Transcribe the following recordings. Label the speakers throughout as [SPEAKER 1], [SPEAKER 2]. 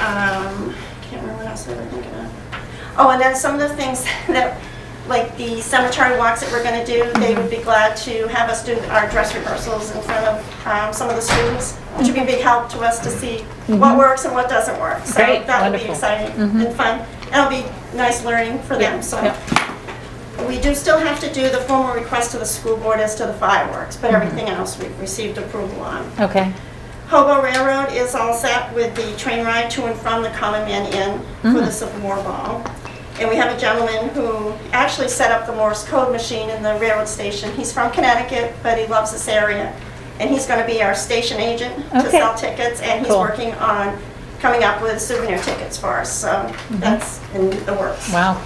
[SPEAKER 1] Um,
[SPEAKER 2] so that we can, uh,
[SPEAKER 1] Oh, and then some of the things that, like the cemetery walks that we're going to do, they would be glad to have us do our dress rehearsals in front of um, some of the students, which would be a big help to us to see what works and what doesn't work. So
[SPEAKER 3] Mhm. Great,
[SPEAKER 1] that would be
[SPEAKER 3] wonderful. Mm-hmm.
[SPEAKER 1] exciting and fun. It'll be nice learning for them, so.
[SPEAKER 3] yeah.
[SPEAKER 1] We do still have to do the formal request to the school board as to the fireworks,
[SPEAKER 3] Mm-hmm.
[SPEAKER 1] but everything else we've received approval on.
[SPEAKER 3] Okay,
[SPEAKER 1] Hobo Railroad is all set with the train ride to and from the Common Man Inn for
[SPEAKER 3] Mm-hmm.
[SPEAKER 1] the Civil War Ball. And we have a gentleman who actually set up the Morse code machine in the railroad station. He's from Connecticut, but he loves this area. And he's going to be our station agent to
[SPEAKER 3] Okay.
[SPEAKER 1] sell tickets, and he's
[SPEAKER 3] Cool.
[SPEAKER 1] working on coming up with souvenir tickets for us. So
[SPEAKER 3] Mm-hmm.
[SPEAKER 1] that's in the works.
[SPEAKER 3] wow.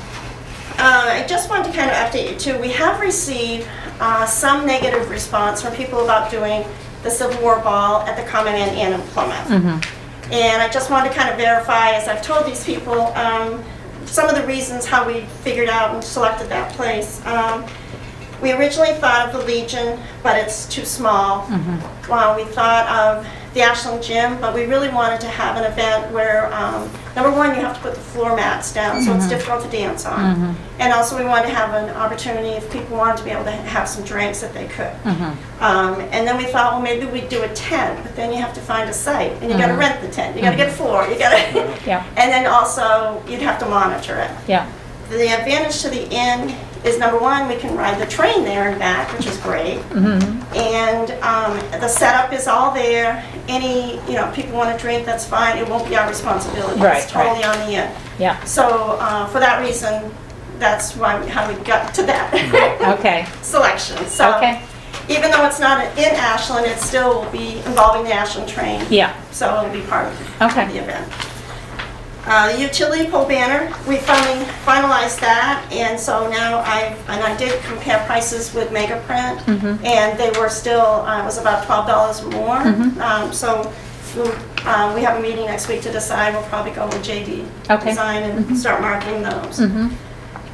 [SPEAKER 1] Uh, I just wanted to kind of update you too. We have received uh, some negative response from people about doing the Civil War Ball at the Common Man Inn in Plymouth. And I just wanted to kind of verify, as I've told these people, um, some of the reasons how we figured out and selected that place. Um, we originally thought of the Legion, but it's too small. Well, we thought of the Ashland Gym, but we really wanted to have an event where, um, number one, you have to put the floor mats down, so it's difficult to dance on. And also, we wanted to have an opportunity, if people wanted to be able to have some drinks, that they
[SPEAKER 3] Mm-hmm.
[SPEAKER 1] could. Um, And then we thought, well, maybe we'd do a tent, but then you have to find a site, and you gotta
[SPEAKER 3] Mm-hmm.
[SPEAKER 1] rent the tent, you gotta get a floor, you gotta,
[SPEAKER 3] Yeah,
[SPEAKER 1] and then also, you'd have to monitor it.
[SPEAKER 3] yeah,
[SPEAKER 1] The advantage to the inn is number one, we can ride the train there and back, which is great.
[SPEAKER 3] Mm-hmm.
[SPEAKER 1] And um, the setup is all there. Any, you know, people want to drink, that's fine. It won't be our responsibility.
[SPEAKER 3] Right,
[SPEAKER 1] It's totally on the inn.
[SPEAKER 3] yeah,
[SPEAKER 1] So uh, for that reason, that's why, how we got to that
[SPEAKER 3] okay,
[SPEAKER 1] selection. So
[SPEAKER 3] okay,
[SPEAKER 1] even though it's not in Ashland, it still will be involving the Ashland train.
[SPEAKER 3] yeah,
[SPEAKER 1] So it'll be part of
[SPEAKER 3] Okay.
[SPEAKER 1] the event. Uh, The utility pole banner, we finally finalized that, and so now I, and I did compare prices with Megaprint,
[SPEAKER 3] Mm-hmm.
[SPEAKER 1] and they were still, uh, it was about $12 more.
[SPEAKER 3] Mm-hmm.
[SPEAKER 1] Um, So we'll, uh, we have a meeting next week to decide, we'll probably go with JD
[SPEAKER 3] Okay. Mm-hmm.
[SPEAKER 1] Design and start marking those.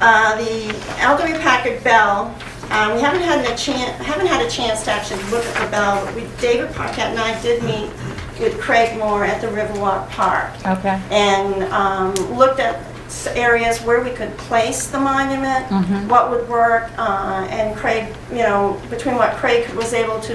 [SPEAKER 1] Uh, The Elderly Packard Bell, um, we haven't had a chance, haven't had a chance to actually look at the bell, but we, David Paquette and I did meet with Craig Moore at the Riverwalk Park
[SPEAKER 3] okay,
[SPEAKER 1] and um, looked at s- areas where we could place the monument, what would work, uh, and Craig, you know, between what Craig was able to,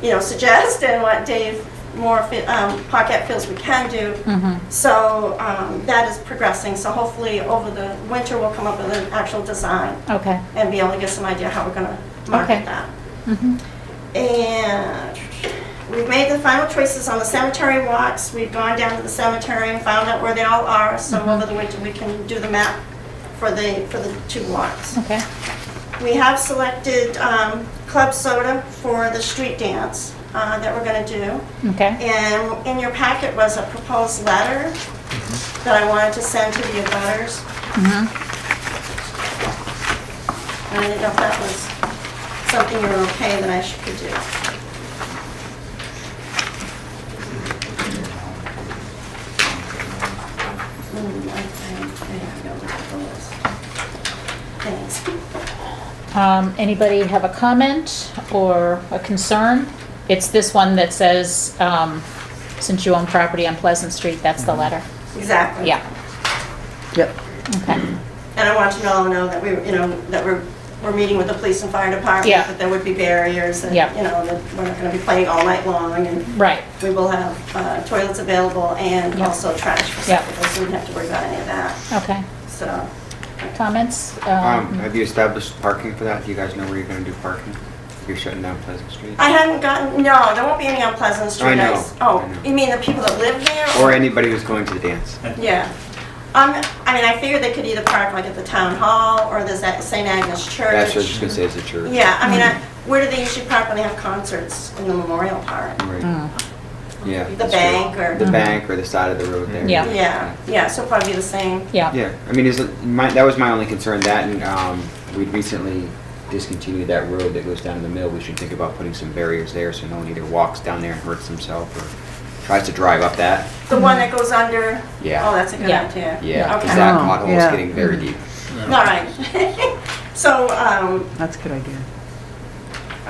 [SPEAKER 1] you know, suggest and what Dave Moore, fe- um, Paquette feels we can do.
[SPEAKER 3] Mm-hmm.
[SPEAKER 1] So um, that is progressing, so hopefully over the winter, we'll come up with an actual design
[SPEAKER 3] okay,
[SPEAKER 1] and be able to get some idea how we're gonna
[SPEAKER 3] Okay.
[SPEAKER 1] market that.
[SPEAKER 3] Mm-hmm.
[SPEAKER 1] And we've made the final choices on the cemetery walks. We've gone down to the cemetery and found out where they all are, so over the winter, we can do the map for the, for the two walks.
[SPEAKER 3] okay,
[SPEAKER 1] We have selected um, Club Soda for the street dance uh, that we're gonna do.
[SPEAKER 3] okay,
[SPEAKER 1] And in your packet was a proposed letter that I wanted to send to the abutters.
[SPEAKER 3] Mm-hmm.
[SPEAKER 1] I didn't know if that was something you were okay that I should could do. Hmm, I think I have no proposed. Thanks.
[SPEAKER 3] um, anybody have a comment or a concern? It's this one that says, um, since you own property on Pleasant Street, that's the letter,
[SPEAKER 1] Mm-hmm. Exactly.
[SPEAKER 3] yeah,
[SPEAKER 4] Yep.
[SPEAKER 3] okay,
[SPEAKER 1] And I want you to all know that we, you know, that we're, we're meeting with the police and fire department.
[SPEAKER 3] Yeah.
[SPEAKER 1] That there would be barriers and, you
[SPEAKER 3] Yeah.
[SPEAKER 1] know, that we're not gonna be playing all night long and
[SPEAKER 3] right,
[SPEAKER 1] we will have uh, toilets available and
[SPEAKER 3] Yeah.
[SPEAKER 1] also trash for
[SPEAKER 3] Yeah. Oh.
[SPEAKER 1] receptacles. We wouldn't have to worry about any of that,
[SPEAKER 3] okay,
[SPEAKER 1] so.
[SPEAKER 3] comments?
[SPEAKER 5] Um,
[SPEAKER 3] Um,
[SPEAKER 5] have you established parking for that? Do you guys know where you're gonna do parking? You're shutting down Pleasant Street?
[SPEAKER 1] I haven't gotten, no, there won't be any on Pleasant Street.
[SPEAKER 5] know,
[SPEAKER 1] s-
[SPEAKER 5] I
[SPEAKER 1] Oh,
[SPEAKER 5] know.
[SPEAKER 1] you mean the people that live there?
[SPEAKER 5] Or anybody who's going to the dance?
[SPEAKER 1] Yeah. Um, I mean, I figured they could either park like at the town hall or the Za- St. Agnes Church.
[SPEAKER 5] That's what I was just gonna say, it's a church.
[SPEAKER 1] Yeah, I mean, I- where do they usually park when they have concerts in the Memorial Park?
[SPEAKER 4] Mm.
[SPEAKER 5] Right. Yeah.
[SPEAKER 1] The
[SPEAKER 5] that's true.
[SPEAKER 1] bank or-
[SPEAKER 5] The bank or the side of the road there.
[SPEAKER 3] Yeah.
[SPEAKER 1] Yeah, yeah, so probably the same.
[SPEAKER 3] Yeah,
[SPEAKER 5] Yeah, I mean, is it, my, that was my only concern, that and, um, we recently discontinued that road that goes down to the mill. We should think about putting some barriers there so no one either walks down there and hurts himself or tries to drive up that.
[SPEAKER 1] The one that goes under?
[SPEAKER 5] Yeah.
[SPEAKER 1] Oh, that's a good
[SPEAKER 3] Yeah.
[SPEAKER 1] idea.
[SPEAKER 5] Yeah,
[SPEAKER 1] Okay.
[SPEAKER 5] cause that
[SPEAKER 4] Oh,
[SPEAKER 5] pothole is
[SPEAKER 4] yeah. Mm-hmm.
[SPEAKER 5] getting very deep.
[SPEAKER 1] All right. So, um,
[SPEAKER 4] That's a good idea.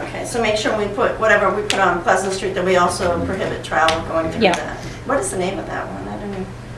[SPEAKER 1] okay, so make sure we put, whatever we put on Pleasant Street, that we also prohibit travel going through
[SPEAKER 3] Yeah.
[SPEAKER 1] that. What is the name of that one?